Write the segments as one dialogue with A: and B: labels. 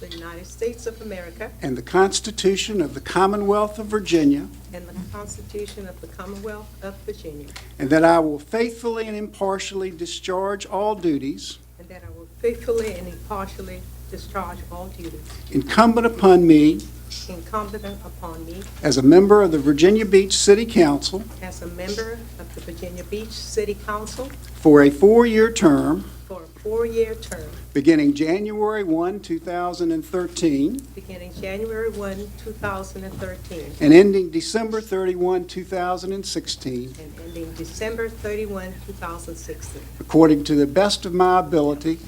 A: the United States of America
B: and the Constitution of the Commonwealth of Virginia,
A: and the Constitution of the Commonwealth of Virginia,
B: and that I will faithfully and impartially discharge all duties
A: and that I will faithfully and impartially discharge all duties
B: incumbent upon me
A: incumbent upon me
B: as a member of the Virginia Beach City Council
A: as a member of the Virginia Beach City Council
B: for a four-year term
A: for a four-year term
B: beginning January 1, 2013,
A: beginning January 1, 2013,
B: and ending December 31, 2016,
A: and ending December 31, 2016,
B: according to the best of my ability,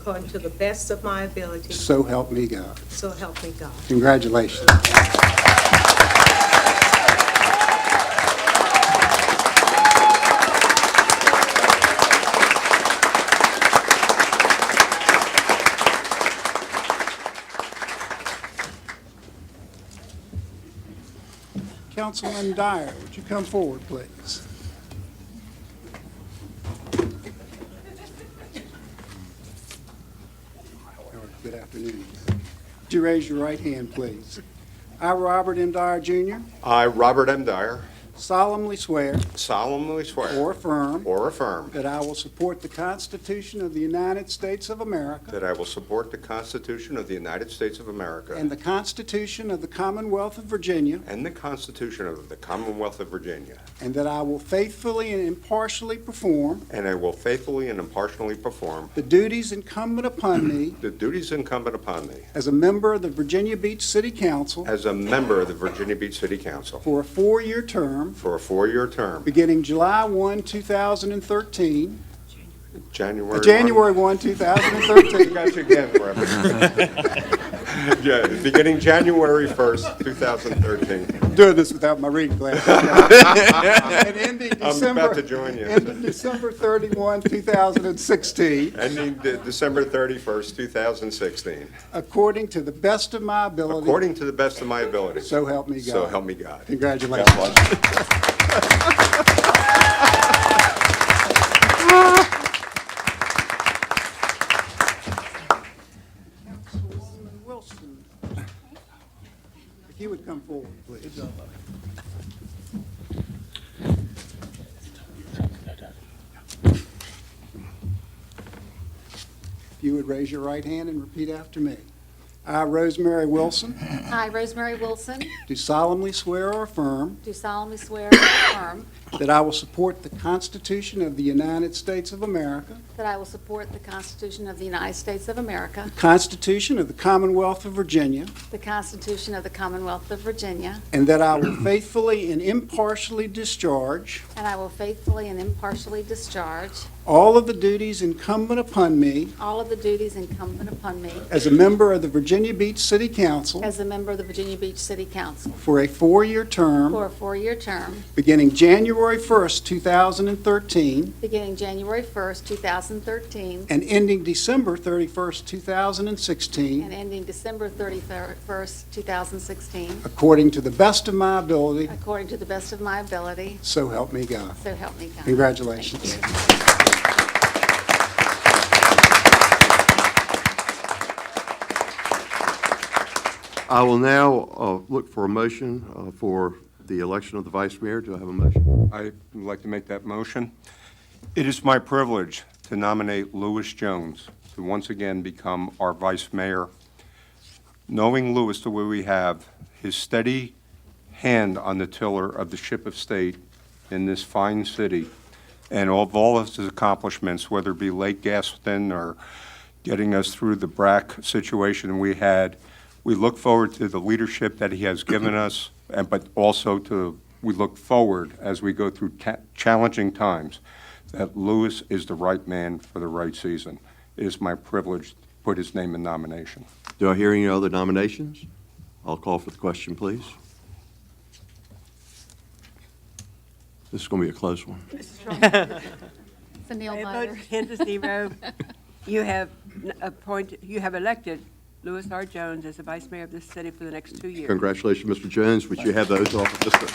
A: according to the best of my ability,
B: so help me God.
A: so help me God.
B: Congratulations. Councilman Dyer, would you come forward, please? Good afternoon. Would you raise your right hand, please? I, Robert M. Dyer Jr.,
C: I, Robert M. Dyer,
B: solemnly swear
C: solemnly swear
B: or affirm
C: or affirm
B: that I will support the Constitution of the United States of America
C: that I will support the Constitution of the United States of America
B: and the Constitution of the Commonwealth of Virginia,
C: and the Constitution of the Commonwealth of Virginia,
B: and that I will faithfully and impartially perform
C: and I will faithfully and impartially perform
B: the duties incumbent upon me
C: the duties incumbent upon me
B: as a member of the Virginia Beach City Council
C: as a member of the Virginia Beach City Council
B: for a four-year term
C: for a four-year term,
B: beginning July 1, 2013,
C: January
B: uh,
C: 1.
B: January 1, 2013,
C: Got you again, Robert. Yeah, beginning January 1st, 2013.
B: doing this without my reading glasses. And ending
C: I'm
B: December.
C: about to join you.
B: Ending December 31, 2016,
C: Ending de- December 31st, 2016.
B: according to the best of my ability.
C: According to the best of my ability.
B: So help me God.
C: So help me God.
B: Congratulations.
C: God bless you.
B: Councilwoman Wilson, if you would come forward, please. If you would raise your right hand and repeat after me. I, Rosemary Wilson,
D: I, Rosemary Wilson,
B: do solemnly swear or affirm
D: do solemnly swear or affirm
B: that I will support the Constitution of the United States of America,
D: that I will support the Constitution of the United States of America,
B: Constitution of the Commonwealth of Virginia,
D: the Constitution of the Commonwealth of Virginia,
B: and that I will faithfully and impartially discharge
D: and I will faithfully and impartially discharge
B: all of the duties incumbent upon me
D: all of the duties incumbent upon me
B: as a member of the Virginia Beach City Council
D: as a member of the Virginia Beach City Council
B: for a four-year term
D: for a four-year term
B: beginning January 1st, 2013,
D: beginning January 1st, 2013,
B: and ending December 31st, 2016,
D: and ending December 31st, 2016,
B: according to the best of my ability,
D: according to the best of my ability,
B: so help me God.
D: so help me God.
B: Congratulations.
E: I will now uh, look for a motion uh, for the election of the vice mayor. Do I have a motion?
C: I would like to make that motion. It is my privilege to nominate Louis Jones to once again become our vice mayor. Knowing Louis the way we have, his steady hand on the tiller of the ship of state in this fine city, and of all of his accomplishments, whether it be Lake Gaston or getting us through the BRAC situation we had, we look forward to the leadership that he has given us, and but also to, we look forward as we go through ta- challenging times, that Lewis is the right man for the right season. It is my privilege to put his name in nomination.
E: Do I hear any other nominations? I'll call for the question, please. This is going to be a close one.
D: So Neil
F: I
D: Meyer.
F: vote ten to zero. You have n- appointed, you have elected Louis R. Jones as the vice mayor of this city for the next two years.
E: Congratulations, Mr. Jones. Would you have those off of this?
D: Say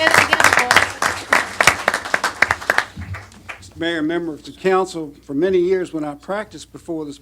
D: that again, boys.
B: Mayor, member of the council, for many years when I practiced before this